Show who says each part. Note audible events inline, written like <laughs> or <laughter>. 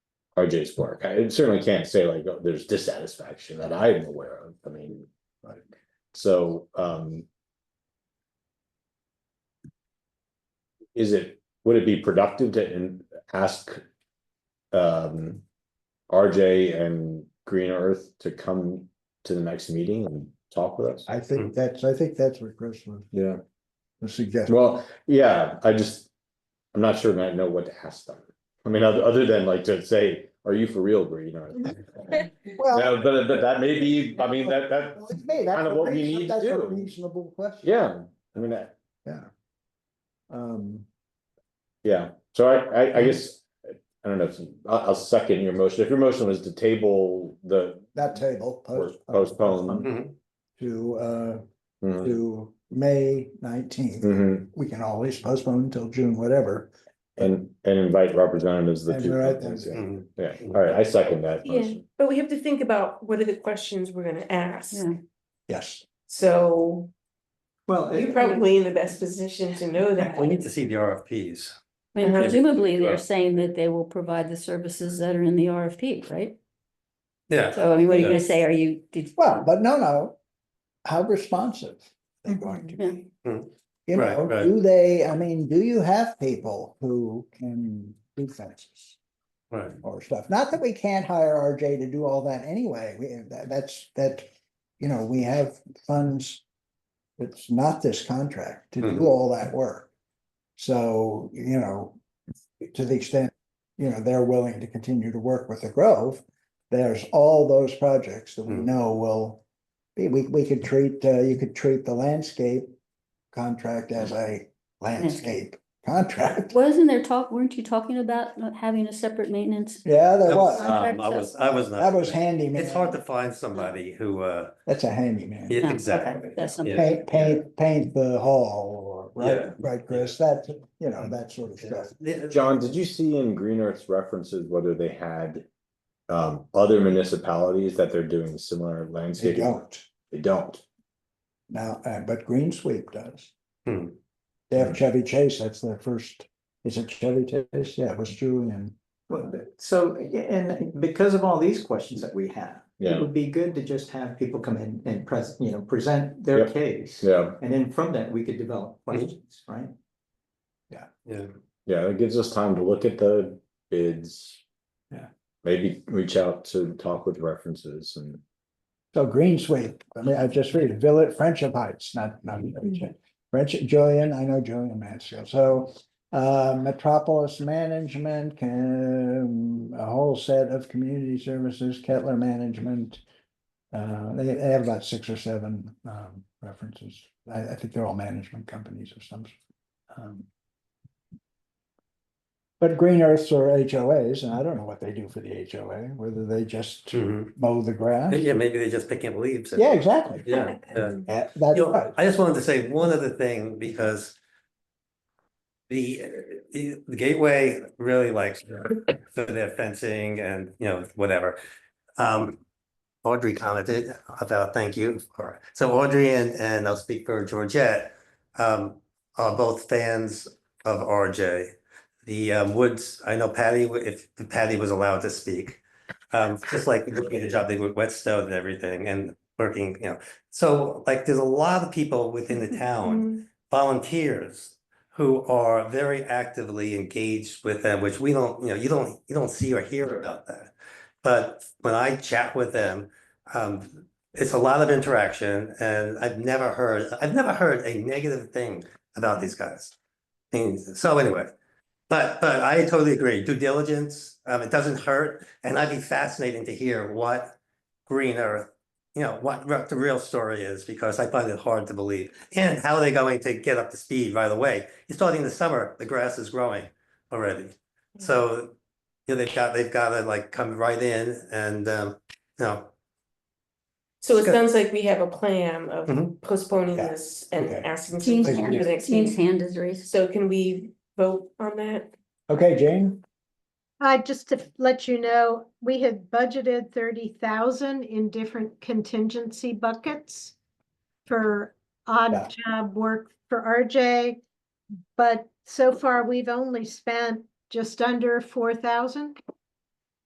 Speaker 1: RJ's work. I certainly can't say like, oh, there's dissatisfaction that I'm aware of, I mean.
Speaker 2: Right.
Speaker 1: So, um. Is it, would it be productive to in- ask? Um. RJ and Green Earth to come to the next meeting and talk with us?
Speaker 2: I think that's, I think that's what Chris was
Speaker 1: Yeah.
Speaker 2: suggesting.
Speaker 1: Well, yeah, I just, I'm not sure I know what to ask them. I mean, other, other than like to say, are you for real, Green Earth?
Speaker 2: Well,
Speaker 1: No, but, but that may be, I mean, that, that,
Speaker 2: it's me, that's
Speaker 1: kind of
Speaker 2: a
Speaker 1: what we
Speaker 2: reason-
Speaker 1: need to
Speaker 2: that's a
Speaker 1: do.
Speaker 2: reasonable question.
Speaker 1: yeah, I mean, that,
Speaker 2: Um,
Speaker 1: yeah, so I, I, I guess. I don't know, if- I'll, I'll second your motion, if your motion was to table the
Speaker 2: that table. post- uh,
Speaker 1: Postpone.
Speaker 3: Mhm.
Speaker 2: To, uh,
Speaker 1: mhm,
Speaker 2: to May nineteenth,
Speaker 1: mhm,
Speaker 2: we can always postpone until June, whatever.
Speaker 1: and, and invite representatives. of the
Speaker 2: And
Speaker 1: two
Speaker 2: we're at
Speaker 1: companies,
Speaker 2: them.
Speaker 1: Yeah,
Speaker 3: Mhm.
Speaker 1: yeah. all right, I second that
Speaker 4: Yeah,
Speaker 1: motion,
Speaker 4: but we have to think about what are the questions we're gonna ask,
Speaker 5: Yeah.
Speaker 2: Yes.
Speaker 4: so
Speaker 3: Well,
Speaker 4: you're
Speaker 3: it-
Speaker 4: probably in the best position to know that.
Speaker 3: we need to see the RFPs.
Speaker 5: I mean,
Speaker 4: Uh-huh.
Speaker 5: presumably they're
Speaker 3: Right.
Speaker 5: saying that they will provide the services that are in the RFP, right?
Speaker 3: Yeah.
Speaker 5: So I mean, what are you gonna
Speaker 4: Yes.
Speaker 5: say? Are you, did?
Speaker 2: Well, but no, no, how responsive they're going to be.
Speaker 3: Yeah.
Speaker 1: Hmm.
Speaker 2: You
Speaker 3: Right,
Speaker 2: know,
Speaker 3: right.
Speaker 2: do they, I mean, do you have people who can do fences
Speaker 3: Right.
Speaker 2: or stuff? Not that we can't hire RJ to do all that anyway, we, that, that's, that, you know, we have funds. It's not this contract to do
Speaker 3: Mhm.
Speaker 2: all that work. So, you know, to the extent, you know, they're willing to continue to work with the Grove. There's all those projects that we
Speaker 3: Mhm.
Speaker 2: know will, be- we, we could treat, uh, you could treat the landscape contract as
Speaker 3: Mm.
Speaker 2: a landscape contract. <laughs>
Speaker 5: Wasn't there talk, weren't you talking about not having a separate maintenance?
Speaker 2: Yeah, there
Speaker 3: That was-
Speaker 2: was,
Speaker 3: um, I was, I was not.
Speaker 2: that was handyman.
Speaker 3: It's hard to find somebody who, uh,
Speaker 2: That's a handyman.
Speaker 3: yeah,
Speaker 5: okay.
Speaker 3: exactly.
Speaker 5: That's something.
Speaker 3: Yeah.
Speaker 2: Paint, paint, paint the hall, or, right,
Speaker 3: Yeah.
Speaker 2: right, Chris, that, you know, that sort of stuff.
Speaker 3: Yeah.
Speaker 1: John, did you see in Green Earth's references whether they had? Um, other municipalities that they're doing similar
Speaker 2: They
Speaker 1: landscaping,
Speaker 2: don't
Speaker 1: they don't,
Speaker 2: now, uh, but Green Sweep does.
Speaker 3: Hmm.
Speaker 2: They have Chevy Chase, that's their first, is it Chevy Chase? Yeah, it was Julian.
Speaker 6: Well, but- so, yeah, and because of all these questions that we have, it
Speaker 1: yeah,
Speaker 6: would be good to just have people come in and pres you know, present their
Speaker 1: Yep.
Speaker 6: case.
Speaker 1: yeah.
Speaker 6: And then from that, we could develop questions, right?
Speaker 3: Yeah.
Speaker 1: Yeah, it gives us time to look at the bids.
Speaker 6: Yeah.
Speaker 1: Maybe reach out to talk with references and,
Speaker 2: So Green Sweep, I mean, I just read Village Friendship Heights, not, not Chevy Chase. Friendship, Julian, I know Julian Mansfield, so, uh, Metropolis Management, can, a whole set of community services, Kettler Management. Uh, they, they have about six or seven, um, references, I, I think they're all management companies or some. um, But Green Earths are HOAs, and I don't know what they do for the HOA, whether they just
Speaker 3: Mhm.
Speaker 2: mow the grass.
Speaker 3: Yeah, maybe they're just picking up leaves. and-
Speaker 2: Yeah, exactly.
Speaker 3: Yeah, yeah.
Speaker 2: Yeah, that's
Speaker 3: You know,
Speaker 2: right.
Speaker 3: I just wanted to say one other thing because the, uh, the the gateway really likes for their fencing and, you know, whatever. Um, Audrey commented about, thank you for, so Audrey and, and I'll speak for Georgette, um, are both fans of RJ. The um, Woods, I know Patty, w- if Patty was allowed to speak, um, just like looking at the job they did with Whetstone and everything and working, you know, so like, there's a lot of people within the town,
Speaker 4: Mhm.
Speaker 3: volunteers. Who are very actively engaged with them, which we don't, you know, you don't, you don't see or hear about that. But when I chat with them, um, it's a lot of interaction and I've never heard, I've never heard a negative thing about these guys. And so anyway, but, but I totally agree, due diligence, um, it doesn't hurt, and I'd be fascinating to hear what Green Earth you know, what re- the real story is, because I find it hard to believe. And how are they going to get up to speed right away? You're starting the summer, the grass is growing already. So, you know, they've got, they've got to like come right in and, um, you know,
Speaker 4: So it
Speaker 3: Good.
Speaker 4: sounds like we have a plan of
Speaker 3: Mhm.
Speaker 4: postponing
Speaker 2: Yeah,
Speaker 4: this and
Speaker 2: okay.
Speaker 4: asking.
Speaker 5: Jean's
Speaker 4: some-
Speaker 5: hand,
Speaker 4: for the next
Speaker 5: Jean's
Speaker 4: meeting.
Speaker 5: hand is raised.
Speaker 4: So can we vote on that?
Speaker 2: Okay, Jane,
Speaker 7: Uh, just to let you know, we had budgeted thirty thousand in different contingency buckets for
Speaker 2: Yeah.
Speaker 7: odd job work for RJ. But so far, we've only spent just under four thousand.